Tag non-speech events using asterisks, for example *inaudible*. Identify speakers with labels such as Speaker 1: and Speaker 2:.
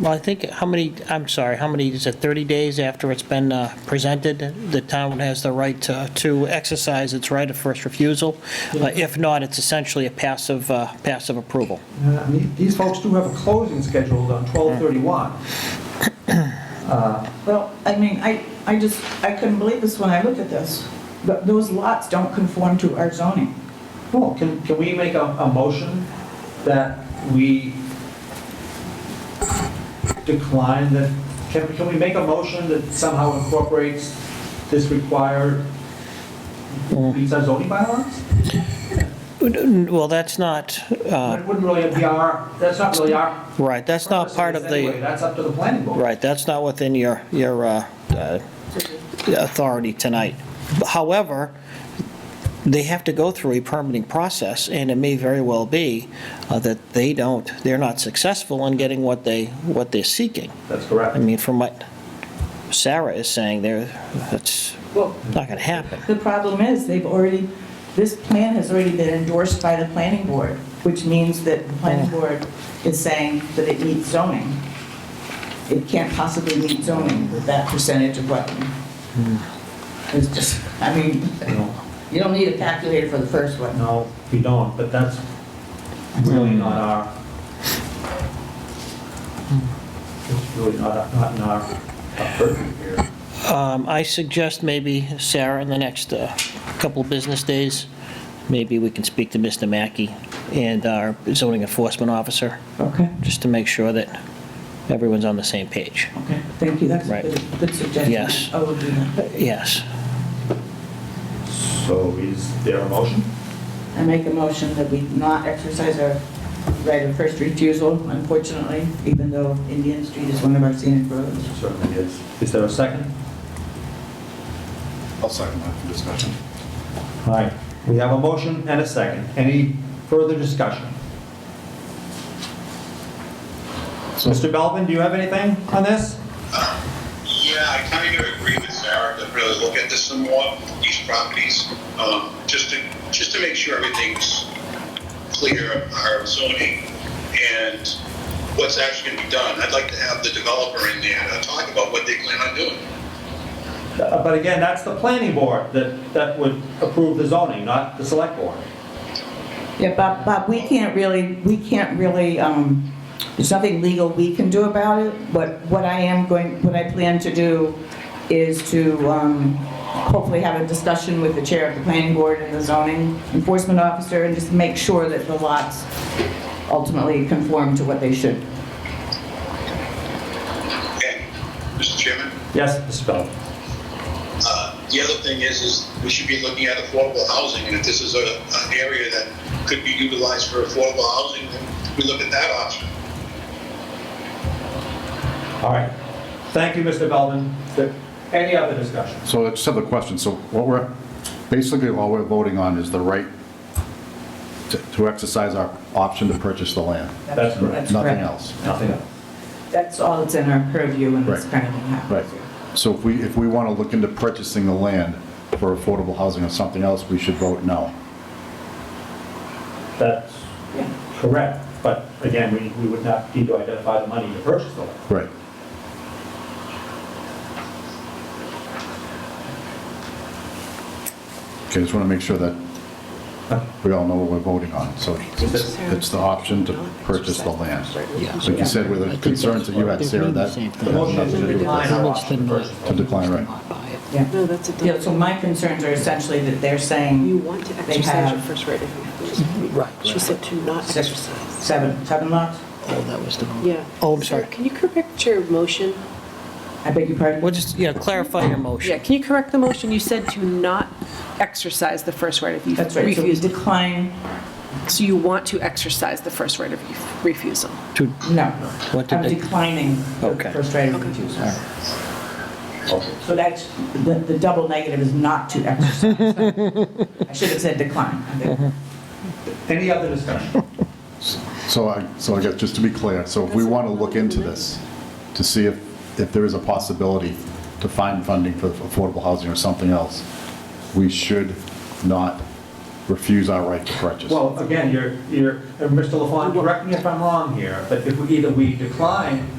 Speaker 1: Well, I think, how many, I'm sorry, how many, is it 30 days after it's been uh, presented? The town has the right to, to exercise its right of first refusal. Uh, If not, it's essentially a passive, uh, passive approval.
Speaker 2: Uh, I mean, These folks do have a closing scheduled on 12:31.
Speaker 3: Well, I mean, I, I just, I couldn't believe this when I looked at this. Th- Those lots don't conform to our zoning.
Speaker 2: Well, can, can we make a, a motion that we decline that, can, can we make a motion that somehow incorporates this required,
Speaker 1: Mm.
Speaker 2: these are zoning bylaws?
Speaker 1: Well, that's not, uh,
Speaker 2: It wouldn't really be our, that's not really our.
Speaker 1: right, that's not part of
Speaker 2: purpose anyway.
Speaker 1: the,
Speaker 2: That's up to the planning board.
Speaker 1: right, that's not within your, your uh, uh, authority tonight. However, they have to go through a permitting process, and it may very well be uh, that they don't, they're not successful in getting what they, what they're seeking.
Speaker 2: That's correct.
Speaker 1: I mean, from what Sarah is saying there, that's
Speaker 3: Well,
Speaker 1: not going to happen.
Speaker 3: the problem is, they've already, this plan has already been endorsed by the planning board, which means that the planning board is saying that it needs zoning. It can't possibly meet zoning with that percentage of wetland. It's just, I mean,
Speaker 2: No.
Speaker 3: you don't need a calculator for the first one.
Speaker 2: No, we don't, but that's really not our. It's really not, our- not in our, our purview here.
Speaker 1: Um, I suggest maybe, Sarah, in the next uh, couple of business days, maybe we can speak to Mr. Mackey and our zoning enforcement officer,
Speaker 3: Okay,
Speaker 1: just to make sure that everyone's on the same page.
Speaker 3: okay, thank you, that's a
Speaker 1: Right.
Speaker 3: good, good suggestion.
Speaker 1: Yes.
Speaker 3: I will do that.
Speaker 1: Yes.
Speaker 2: So is there a motion?
Speaker 3: I make a motion that we not exercise our right of first refusal, unfortunately, even though Indian Street is one of our scenic roads.
Speaker 2: Certainly is. Is there a second?
Speaker 4: I'll second that for discussion.
Speaker 2: All right, we have a motion and a second. Any further discussion? Mr. Belvin, do you have anything on this?
Speaker 5: Yeah, I kind of agree with Sarah to really look at this some more, these properties, um, just to, just to make sure everything's clear, of our zoning and what's actually going to be done. I'd like to have the developer in there to talk about what they plan on doing.
Speaker 2: Uh, But again, that's the planning board that, that would approve the zoning, not the select board.
Speaker 3: Yeah, but, but we can't really, we can't really, um, there's nothing legal we can do about it, but what I am going, what I plan to do is to, um, hopefully have a discussion with the chair of the planning board and the zoning enforcement officer and just make sure that the lots ultimately conform to what they should.
Speaker 5: Okay, Mr. Chairman?
Speaker 2: Yes, Mr. Belvin?
Speaker 5: Uh, The other thing is, is we should be looking at affordable housing, and if this is a, an area that could be utilized for affordable housing, then we look at that option.
Speaker 2: All right. Thank you, Mr. Belvin. There- Any other discussion?
Speaker 4: So I just have a question. So what we're, basically all we're voting on is the right to- to exercise our option to purchase the land,
Speaker 2: That's correct.
Speaker 4: nothing
Speaker 3: correct.
Speaker 4: else.
Speaker 2: Nothing else.
Speaker 3: That's all that's in our purview when this
Speaker 4: Right.
Speaker 3: kind of thing happens.
Speaker 4: Right. So if we, if we want to look into purchasing the land for affordable housing or something else, we should vote no.
Speaker 2: That's
Speaker 3: Yeah.
Speaker 2: correct, but again, we, we would not need to identify the money to purchase the land.
Speaker 4: Right. Okay, just want to make sure that we all know what we're voting on. So it's the option to purchase the land. Like you said, with the concerns that you had, Sarah, that
Speaker 2: The motion is to decline our option to purchase.
Speaker 4: to decline, right?
Speaker 6: No, that's a
Speaker 3: Yeah,
Speaker 6: done.
Speaker 3: so my concerns are essentially that they're
Speaker 6: You
Speaker 3: saying
Speaker 6: want to
Speaker 3: They
Speaker 6: exercise your
Speaker 3: have-
Speaker 6: first right of refusal. Right. She said to not
Speaker 3: six,
Speaker 6: exercise.
Speaker 3: seven, seven lots?
Speaker 6: Yeah.
Speaker 1: Oh, I'm sorry.
Speaker 6: Can you correct your motion?
Speaker 3: I beg your pardon?
Speaker 1: Well, just, yeah, clarify your motion.
Speaker 6: Yeah, can you correct the motion? You said to not exercise the first right of refusal.
Speaker 3: That's right, so we decline,
Speaker 6: So you want to exercise the first right of ref- refusal.
Speaker 1: To-
Speaker 3: no.
Speaker 1: What did
Speaker 3: I'm
Speaker 1: they-
Speaker 3: declining
Speaker 1: Okay.
Speaker 3: the first right of
Speaker 6: Okay.
Speaker 3: refusal.
Speaker 1: All right.
Speaker 3: So that's, the, the double negative is not to
Speaker 1: *laughs*
Speaker 3: exercise. I should have said decline. I think.
Speaker 2: Any other discussion?
Speaker 4: So I, so I guess, just to be clear, so if we want to look into this, to see if, if there is a possibility to find funding for affordable housing or something else, we should not refuse our right to purchase.
Speaker 2: Well, again, you're, you're, and Mr. LaFawn, correct me if I'm wrong here, but if we, either we decline